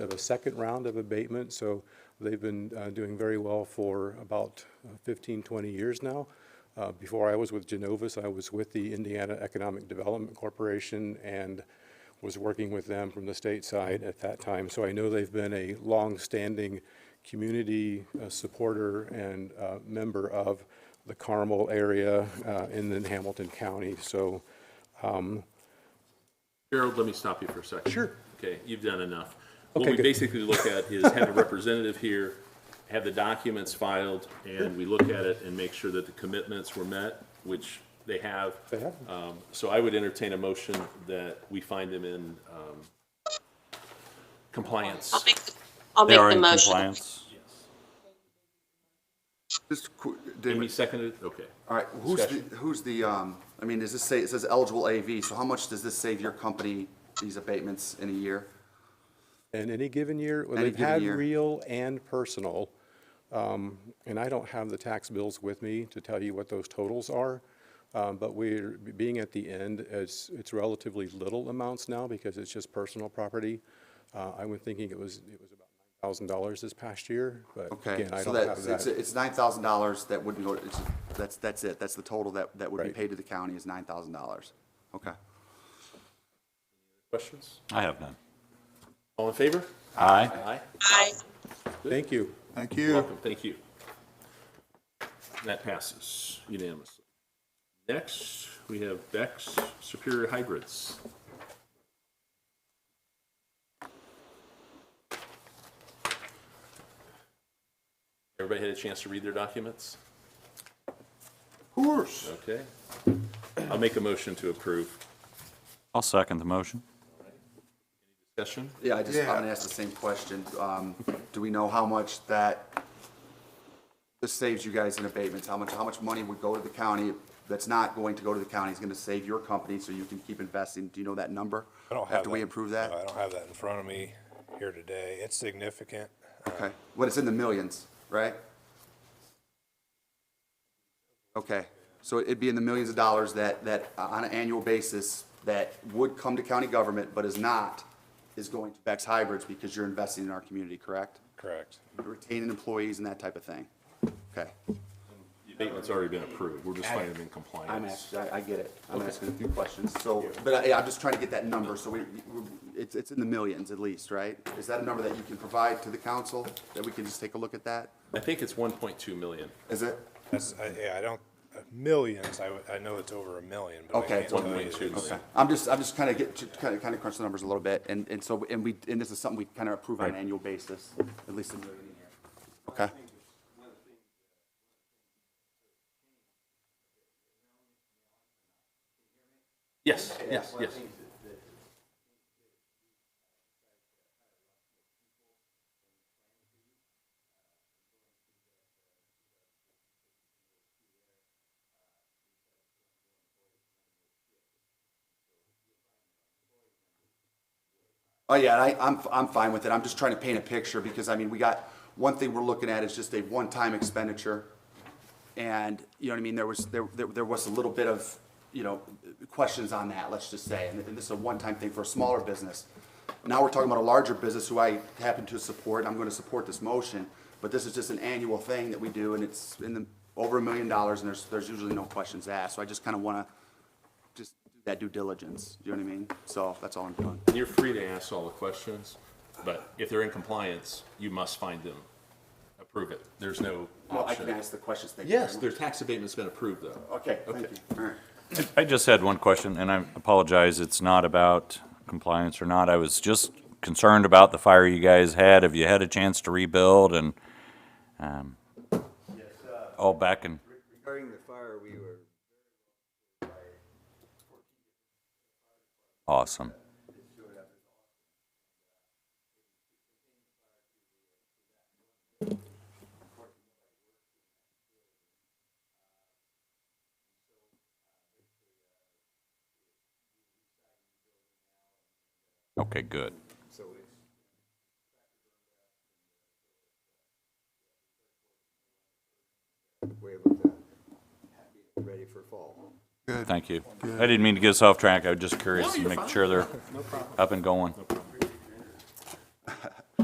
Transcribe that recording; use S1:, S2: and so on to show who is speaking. S1: of a second round of abatement, so they've been uh, doing very well for about uh, 15, 20 years now. Uh, Before I was with Genovis, I was with the Indiana Economic Development Corporation and was working with them from the state side at that time. So I know they've been a longstanding community uh, supporter and uh, member of the Carmel area uh, and then Hamilton County. So
S2: Gerald, let me stop you for a second.
S1: Sure.
S2: Okay, you've done enough.
S1: Okay,
S2: What we
S1: good.
S2: basically look at is have a representative here, have the documents filed, and we look at it and make sure that the commitments were met, which they have.
S1: They have.
S2: Um, So I would entertain a motion that we find them in um, compliance.
S3: I'll make, the- I'll
S4: They are
S3: make the
S4: in
S3: motion.
S4: compliance.
S5: Just, qu-
S2: Amy
S5: David,
S2: seconded, okay.
S5: all right, who's the,
S2: discussion.
S5: who's the, um, I mean, does this say, it says eligible AV, so how much does this save your company, these abatements in a year?
S1: in any given year, well,
S5: Any
S1: they've
S5: given
S1: had
S5: year.
S1: real and personal. um, And I don't have the tax bills with me to tell you what those totals are. um, But we're, being at the end, it's, it's relatively little amounts now because it's just personal property. Uh, I was thinking it was, it was about thousand dollars this past year, but
S5: Okay,
S1: again, I
S5: so
S1: don't
S5: that,
S1: have
S5: it's,
S1: that.
S5: it's nine thousand dollars that wouldn't go, it's, that's, that's it, that's the total that, that would be
S1: Right.
S5: paid to the county is nine thousand dollars. Okay.
S2: Questions?
S4: I have none.
S2: All in favor?
S4: Aye.
S2: Aye.
S3: Aye.
S1: Thank you.
S5: Thank you.
S2: Welcome, thank you. That passes unanimously. Next, we have Bex Superior Hybrids. Everybody had a chance to read their documents?
S5: Of course.
S2: Okay. I'll make a motion to approve.
S4: I'll second the motion.
S2: Discussion?
S5: Yeah, I just, I'm gonna ask the same question. Um, do we know how much that, this saves you guys in abatements? How much, how much money would go to the county that's not going to go to the county? It's gonna save your company so you can keep investing. Do you know that number?
S6: I don't have that.
S5: After we approve
S6: No, I
S5: that?
S6: don't have that in front of me here today. It's significant.
S5: Okay. What, it's in the millions, right? Okay, so it'd be in the millions of dollars that, that uh, on an annual basis that would come to county government but is not, is going to Bex Hybrids because you're investing in our community, correct?
S6: Correct.
S5: retaining employees and that type of thing. Okay,
S2: The abatement's already been approved. We're just finding them in compliance.
S5: I'm asking, I, I get it. I'm asking a few questions, so, but I, I'm just trying to get that number, so we, we- it's, it's in the millions at least, right? Is that a number that you can provide to the council, that we can just take a look at that?
S2: I think it's 1.2 million.
S5: Is it?
S6: That's, I- yeah, I don't, millions, I, would- I know it's over a million, but I
S5: Okay.
S6: can't tell
S2: 1.2
S6: you. it's-
S2: million.
S5: I'm just, I'm just kind of get, kind of, kind of crunch the numbers a little bit, and, and so, and we, and this is something we kind of approve on an annual basis, at least a million a year. Okay.
S2: Yes, yes, yes.
S5: Oh, yeah, I, I'm, I'm fine with it. I'm just trying to paint a picture because, I mean, we got, one thing we're looking at is just a one-time expenditure. And, you know what I mean, there was, there, there there was a little bit of, you know, questions on that, let's just say. And this is a one-time thing for a smaller business. Now we're talking about a larger business who I happen to support, I'm gonna support this motion. But this is just an annual thing that we do and it's in the, over a million dollars and there's, there's usually no questions asked. So I just kinda wanna just do that due diligence, you know what I mean? So that's all I'm doing.
S2: You're free to ask all the questions, but if they're in compliance, you must find them, approve it. There's no
S5: Well, I can
S2: option.
S5: ask the questions. thank you
S2: Yes,
S5: very
S2: their tax abatement's been approved, though.
S5: much. Okay, thank
S2: Okay.
S5: you. All right.
S4: I just had one question, and I apologize, it's not about compliance or not. I was just concerned about the fire you guys had. Have you had a chance to rebuild and, um, all back and,
S7: Regarding the fire, we were,
S4: awesome. Okay, good.
S7: so we, we're able to be ready for fall.
S4: Thank you. I didn't mean to get us off track. I was just curious to make sure they're up and going.